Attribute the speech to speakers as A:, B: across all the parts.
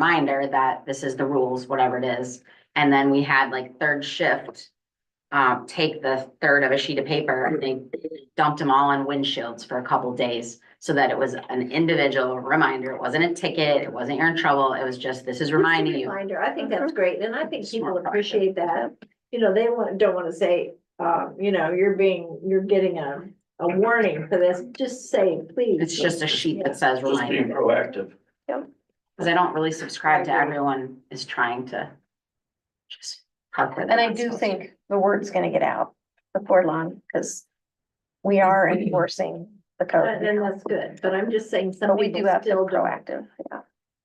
A: reminder that this is the rules, whatever it is. And then we had like third shift, uh, take the third of a sheet of paper and they dumped them all on windshields for a couple days. So that it was an individual reminder. It wasn't a ticket. It wasn't you're in trouble. It was just, this is reminding you.
B: Reminder, I think that's great, and I think people
A: Smart project.
B: appreciate that. You know, they want, don't wanna say, um, you know, you're being, you're getting a, a warning for this, just say, please.
A: It's just a sheet that says
C: Just being
A: reminder.
C: proactive.
A: Cause I don't really subscribe to
D: I agree.
A: everyone is trying to. just park where they're
D: And I
A: not
D: do
A: supposed to.
D: think the word's gonna get out before long, because we are enforcing the
B: And and
D: code.
B: Uh, that's good, but I'm just saying some
D: But we do
B: people
D: have to be
B: still don't,
D: proactive, yeah.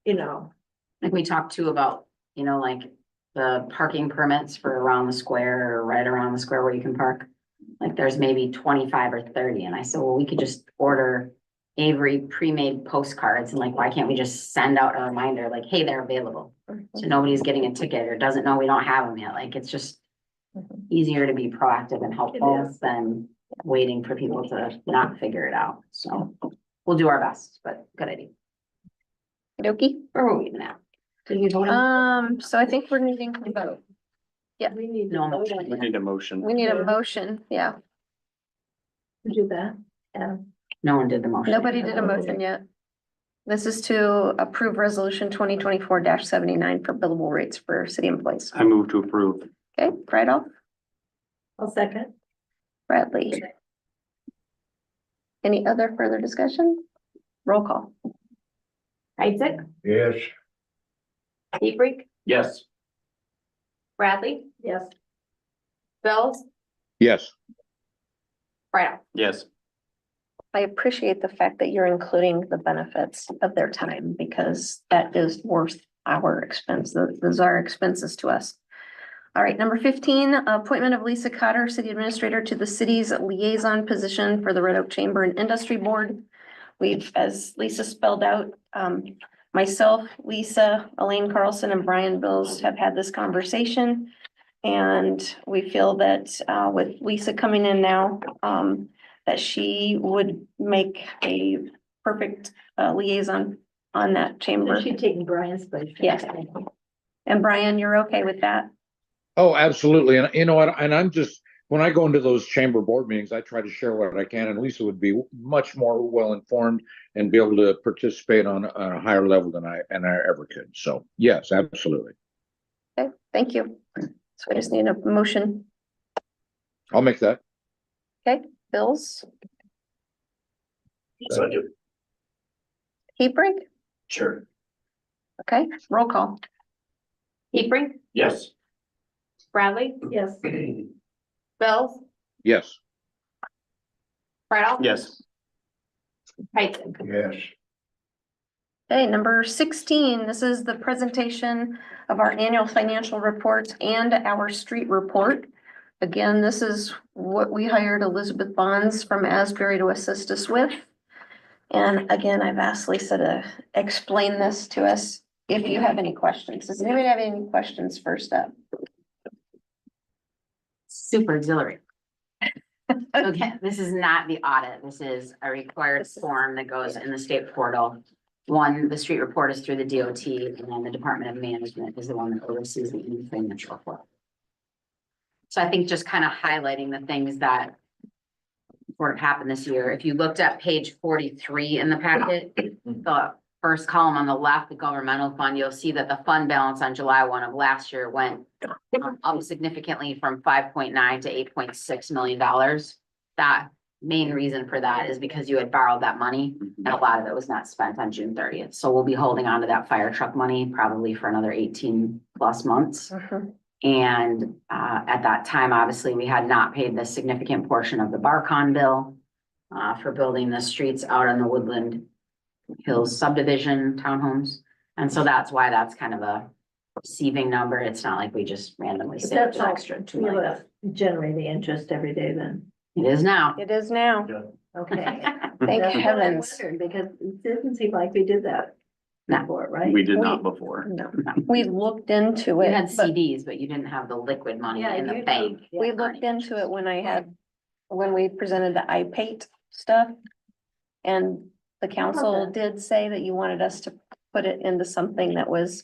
B: you know,
A: Like we talked too about, you know, like the parking permits for around the square or right around the square where you can park. Like there's maybe twenty-five or thirty, and I said, well, we could just order Avery pre-made postcards, and like, why can't we just send out a reminder, like, hey, they're available?
B: Mm-hmm.
A: So nobody's getting a ticket or doesn't know we don't have them yet, like, it's just
D: Mhm.
A: easier to be proactive and helpful
B: is.
A: than waiting for people to not figure it out, so. We'll do our best, but good idea,
D: Okey-dokey.
A: where were we even at? Did we vote on?
D: Um, so I think we're needing to vote. Yeah.
B: Um, we need to
A: No,
B: know
A: no.
B: that,
C: We need a motion.
D: We need
B: Yeah.
D: a motion, yeah.
B: to do that. Um,
A: No one did the motion.
D: Nobody did a motion yet. This is to approve resolution twenty twenty-four seventy-nine for billable rates for city employees.
C: I move to approve.
D: Okay, right off,
B: I'll second.
D: Bradley. Any other further discussion? Roll call.
E: Isaac,
F: Yes,
E: Hebrink,
C: Yes.
E: Bradley,
B: Yes,
E: Bills,
G: Yes,
E: Brown.
C: Yes.
D: I appreciate the fact that you're including the benefits of their time because that is worth our expense. Tho- Those are expenses to us. All right, number fifteen, appointment of Lisa Cotter, city administrator to the city's liaison position for the Red Oak Chamber and Industry Board. We've, as Lisa spelled out, um, myself, Lisa, Elaine Carlson and Brian Bills have had this conversation. And we feel that, uh, with Lisa coming in now, um, that she would make a perfect uh, liaison on that
B: so
D: chamber.
B: she taking Brian's place.
D: Yes. And Brian, you're okay with that?
G: oh, absolutely, and you know what, and I'm just, when I go into those chamber board meetings, I try to share what I can, and Lisa would be much more well-informed and be able to participate on, on a higher level than I, and I ever could, so, yes, absolutely.
D: Thank you. So I just need a motion.
G: I'll make that,
D: Bills,
C: So I do.
D: Hebrink,
C: Sure.
D: okay, roll call.
E: Hebrink,
C: Yes.
E: Bradley,
B: Yes,
E: Bills,
G: yes,
E: Brown.
C: Yes.
E: Isaac,
F: yes,
D: Okay, number sixteen, this is the presentation of our annual financial report and our street report. Again, this is what we hired Elizabeth Bonds from Asbury to assist us with. And again, I've asked Lisa to explain this to us if you have any questions. Does anybody have any questions first up?
A: super auxiliary. Okay, this is not the audit. This is a required
D: This is-
A: form that goes in the state portal. One, the street report is through the DOT and then the Department of Management is the one that oversees the financial report. So I think just kind of highlighting the things that sort of happened this year. If you looked at page forty-three in the packet, the first column on the left, the governmental fund, you'll see that the fund balance on July one of last year went um, up significantly from five point nine to eight point six million dollars. That main reason for that is because you had borrowed that money and a lot of it was not spent on June thirtieth. So we'll be holding on to that fire truck money probably for another eighteen plus months.
D: Uh-huh.
A: And uh, at that time, obviously, we had not paid the significant portion of the Barcon bill uh, for building the streets out on the Woodland Hills subdivision townhomes. And so that's why that's kind of a receiving number. It's not like we just randomly
B: But
A: saved
B: that's
A: an
B: all,
A: extra two
B: you
A: million.
B: know, generate the interest every day then,
A: It is now.
D: It is now.
B: okay.
D: Thank
B: That's what I
D: heavens.
B: wondered, Because it didn't seem like we did that
A: No.
B: before, right?
C: We did not before.
D: No, we looked into
A: You
D: it,
A: had
D: but
A: CDs, but you didn't have the liquid money
B: Yeah,
A: in
B: you
A: the
B: did.
A: bank.
B: Yeah.
D: we looked into it when I had, when we presented the IPate stuff. And the council
B: Okay.
D: did say that you wanted us to put it into something that was